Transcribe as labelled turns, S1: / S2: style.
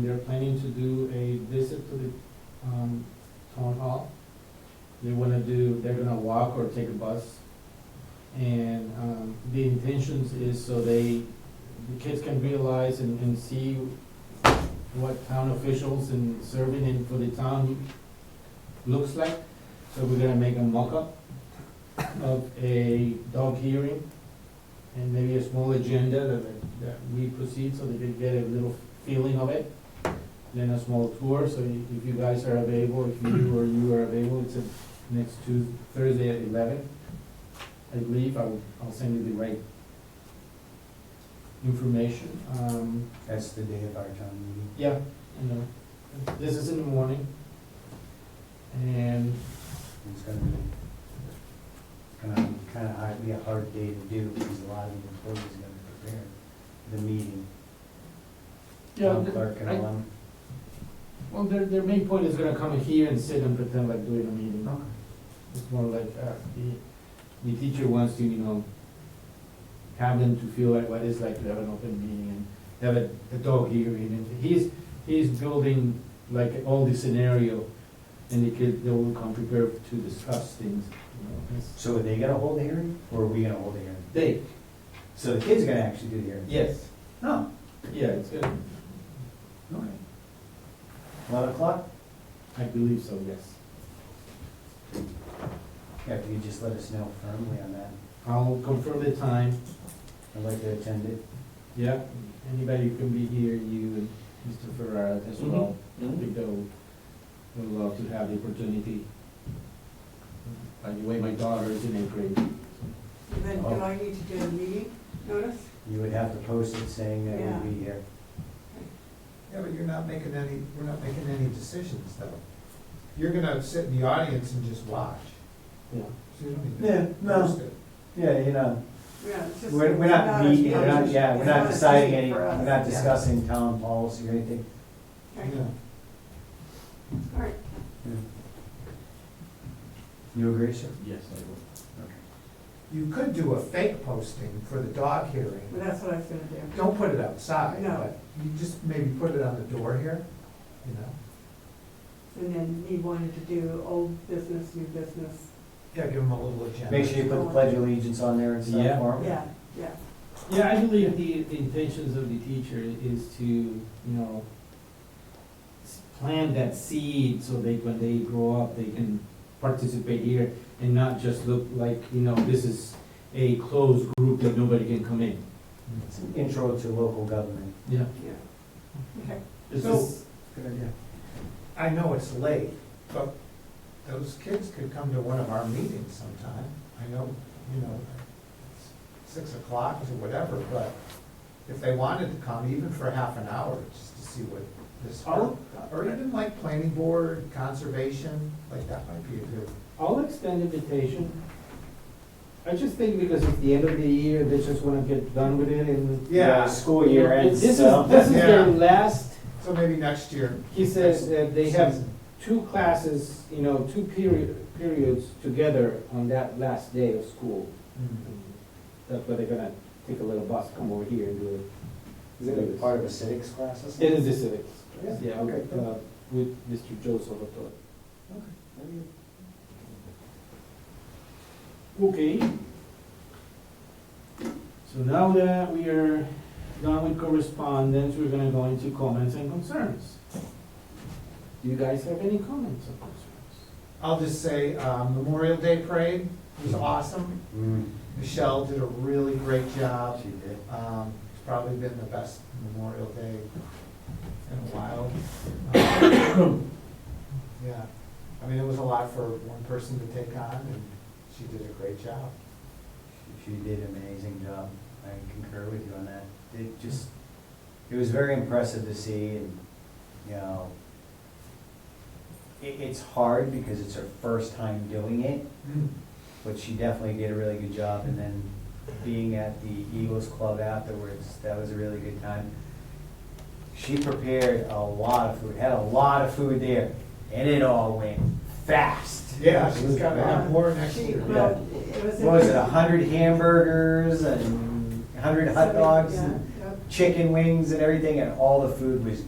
S1: to do a visit to the, um, town hall. They wanna do, they're gonna walk or take a bus. And, um, the intentions is so they, the kids can realize and, and see what town officials and serving in for the town looks like. So we're gonna make a mock-up of a dog hearing and maybe a small agenda that, that we proceed so they can get a little feeling of it. Then a small tour, so i- if you guys are available, if you or you are available, it's a next Tuesday, Thursday at eleven. I believe I'll, I'll send you the right information. Um,
S2: That's the day of our town meeting.
S1: yeah, I know. This is in the morning. And
S2: It's gonna be, um, kinda hard, be a hard day to do because a lot of the employees are gonna prepare the meeting.
S1: Yeah,
S2: Town
S1: th-
S2: Clerk and
S1: I-
S2: all them.
S1: Well, their, their main point is gonna come here and sit and pretend like doing a meeting. It's more like, uh, the, the teacher wants to, you know, have them to feel like what it's like to have an open meeting and have a, a dog hearing. And he's, he's building like all the scenario and the kid, they will come prepared to discuss things, you know. it's-
S2: So are they gonna hold the hearing or are we gonna hold the hearing?
S1: They,
S2: So the kids are gonna actually do the hearing?
S1: yes,
S2: No.
S1: yeah, it's good.
S2: Okay. Eleven o'clock?
S1: I believe so, yes.
S2: Yeah, if you could just let us know firmly on that.
S1: I'll confirm the time.
S2: I'd like to attend it.
S1: Yeah, anybody who can be here, you and Mr. Ferrara as well. I think they will, will love to have the opportunity. By the way, my daughter is in eighth grade.
S3: Then do
S2: Oh.
S3: I need to do a meeting notice?
S2: You would have to post it saying that
S3: Yeah.
S2: we'd be here.
S4: Yeah, but you're not making any, we're not making any decisions though. You're gonna sit in the audience and just watch.
S1: Yeah.
S4: So you don't
S2: Yeah,
S4: even
S2: no.
S4: post it.
S2: Yeah, you know.
S3: Yeah, it's just.
S2: We're, we're not
S3: a
S2: meeting, we're not,
S3: motion.
S2: yeah, we're
S3: It's
S2: not
S3: a
S2: deciding
S3: decision
S2: any,
S3: for us.
S2: we're not
S3: Yeah.
S2: discussing town policy or anything.
S3: Okay.
S4: Yeah.
S3: All right,
S2: You agree, sir?
S1: Yes, I
S4: You could do a fake posting for the dog
S3: well,
S4: hearing.
S3: that's what I was gonna do.
S4: Don't put it outside,
S3: No.
S4: but you just maybe put it on the door here, you know?
S3: And then he wanted to do old business, new business.
S4: Yeah, give them a little agenda.
S2: Make sure you put the pledge of allegiance on there and
S1: Yeah.
S2: stuff for 'em.
S3: Yeah, yeah.
S1: will. Yeah, I believe the, the intentions of the teacher is to, you know, s- plant that seed so they, when they grow up, they can participate here and not just look like, you know, this is a closed group that nobody can come in.
S2: It's an intro to local government.
S1: Yeah.
S3: Yeah. Okay.
S1: This
S4: So-
S1: is,
S2: Good idea.
S4: I know it's late, but those kids could come to one of our meetings sometime. I know, you know, it's six o'clock or whatever, but if they wanted to come, even for half an hour, just to see what this,
S1: Oh.
S4: or, or even like planning board, conservation, like that might be a good.
S1: I'll extend invitation. I just think because it's the end of the year, they just wanna get done with it and.
S4: Yeah.
S2: School year ends,
S1: This is,
S2: so-
S1: this is their
S4: Yeah.
S1: last,
S4: So maybe next year.
S1: he says that they have
S4: season.
S1: two classes, you know, two period, periods together on that last day of school.
S4: Mm.
S1: That's where they're gonna take a little bus, come over here and do
S2: Is it a part of a civics class or
S1: it. It
S2: something?
S1: is the civics.
S2: Yeah,
S1: Yeah,
S2: okay,
S1: with, uh, with Mr. Joe Salvatore. Okay. So now that we are done with correspondence, we're gonna go into comments and concerns. Do you guys have any comments or concerns?
S4: I'll just say, uh, Memorial Day Parade was awesome.
S2: Mm,
S4: Michelle did a really great job.
S2: she did.
S4: Um, It's probably been the best Memorial Day in a while. Um, Yeah, I mean, it was a lot for one person to take on, and she did a great job.
S2: She did an amazing job. I concur with you on that. It just, it was very impressive to see and, you know, it, it's hard because it's her first time doing it, but she definitely did a really good job. And then being at the Eagles Club afterwards, that was a really good time. She prepared a lot of food, had a lot of food there, and it all went fast.
S4: Yeah, she's got to have Uh, more next
S3: She,
S4: year.
S3: well, it was.
S2: What was it, a hundred hamburgers and a hundred hot dogs
S3: Yeah,
S2: and chicken wings and everything, and all the food was